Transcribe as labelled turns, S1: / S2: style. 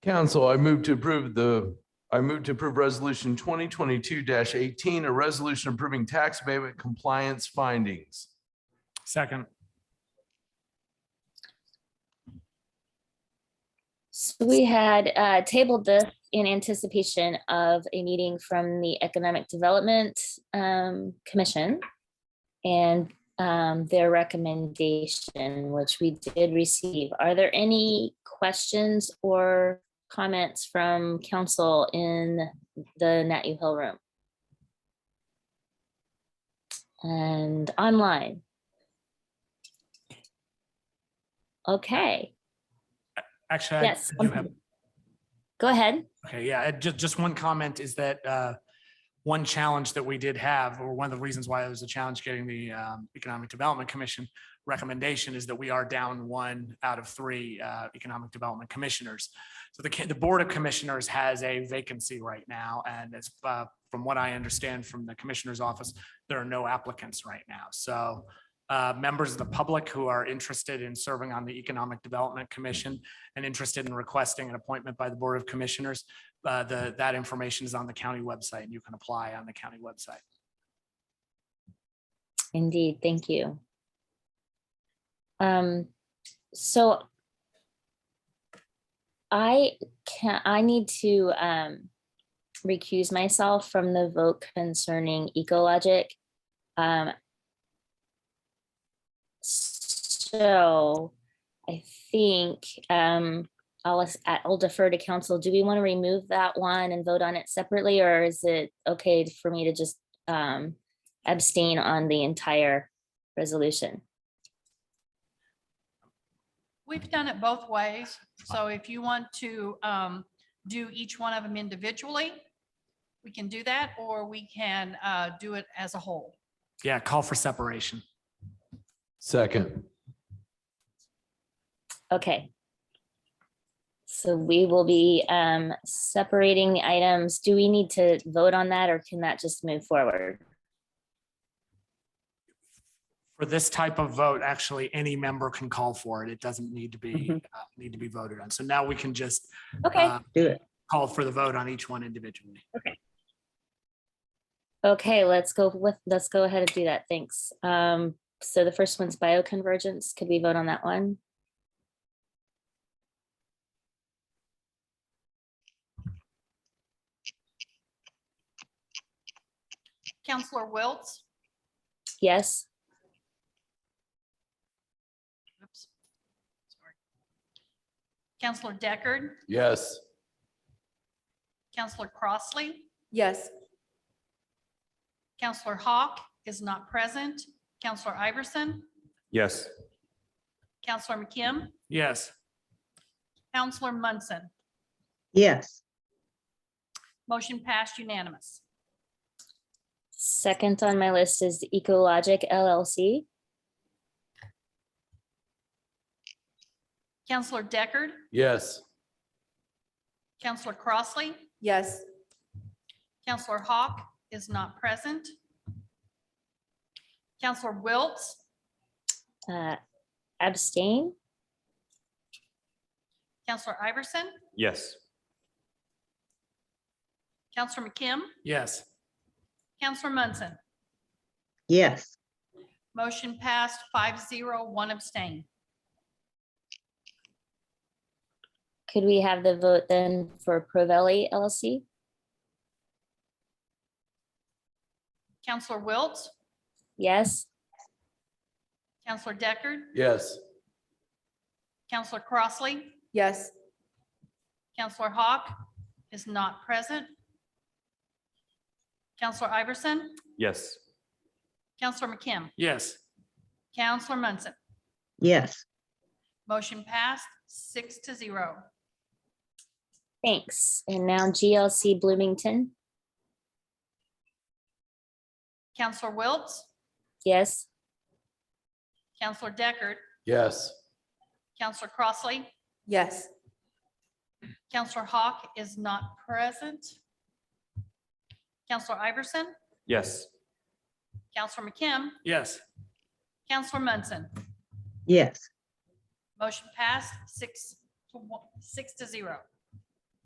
S1: Council, I move to approve the, I move to approve resolution twenty twenty-two eighteen, a resolution approving tax abatement compliance findings.
S2: Second.
S3: So we had uh, tabled this in anticipation of a meeting from the Economic Development um, Commission and um, their recommendation, which we did receive. Are there any questions or comments from council in the Nat U Hill room? And online? Okay,
S2: Actually, I
S3: yes.
S2: do have,
S3: Go ahead.
S2: okay, yeah, just, just one comment is that uh, one challenge that we did have, or one of the reasons why it was a challenge getting the um, Economic Development Commission recommendation is that we are down one out of three uh, Economic Development Commissioners. So the, ca- the Board of Commissioners has a vacancy right now, and it's, uh, from what I understand from the Commissioner's office, there are no applicants right now. So uh, members of the public who are interested in serving on the Economic Development Commission and interested in requesting an appointment by the Board of Commissioners, uh, the, that information is on the county website and you can apply on the county website.
S3: Indeed, thank you. Um, so I can, I need to, um, recuse myself from the vote concerning Ecologic. Um, so I think, um, I'll, as- I'll defer to council. Do we want to remove that one and vote on it separately, or is it okay for me to just, um, abstain on the entire resolution.
S4: We've done it both ways. So if you want to um, do each one of them individually, we can do that, or we can uh, do it as a whole.
S2: Yeah, call for separation.
S1: Second.
S3: Okay. So we will be um separating the items. Do we need to vote on that or can that just move forward?
S2: For this type of vote, actually, any member can call for it. It doesn't need to be,
S5: Mm-hmm.
S3: Mhm.
S2: uh, need to be voted on. So now we can just
S3: Okay,
S2: uh,
S5: Do it.
S2: call for the vote on each one individually.
S3: okay, let's go with, let's go ahead and do that. Thanks. Um, so the first one's bioconvergence. Could we vote on that one?
S4: Counselor Wiltz?
S3: Yes,
S4: oops, sorry. Counselor Deckard,
S1: Yes.
S4: Counselor Crossley,
S6: Yes,
S4: Counselor Hawk is not present, Counselor Iverson,
S7: Yes.
S4: Counselor McKim,
S2: Yes,
S4: Counselor Munson.
S5: Yes,
S4: Motion passed unanimous.
S3: second on my list is Ecologic LLC.
S4: Counselor Deckard,
S1: Yes.
S4: Counselor Crossley,
S6: yes,
S4: Counselor Hawk is not present. Counselor Wiltz,
S3: Uh, abstain?
S4: Counselor Iverson,
S7: Yes.
S4: Counselor McKim,
S2: yes,
S4: Counselor Munson.
S5: yes,
S4: Motion passed five zero, one abstain.
S3: Could we have the vote then for Provelli LLC?
S4: Counselor Wiltz,
S3: Yes,
S4: Counselor Deckard,
S1: Yes.
S4: Counselor Crossley,
S6: yes,
S4: Counselor Hawk is not present. Counselor Iverson,
S7: Yes.
S4: Counselor McKim,
S2: yes,
S4: Counselor Munson.
S5: yes,
S4: Motion passed six to zero.
S3: thanks. And now GLC Bloomington,
S4: Counselor Wiltz,
S3: yes?
S4: Counselor Deckard,
S1: Yes.
S4: Counselor Crossley,
S6: yes,
S4: Counselor Hawk is not present. Counselor Iverson,
S7: Yes.
S4: Counselor McKim,
S2: yes.
S4: Counselor Munson.
S5: yes,
S4: Motion passed six to one, six to zero.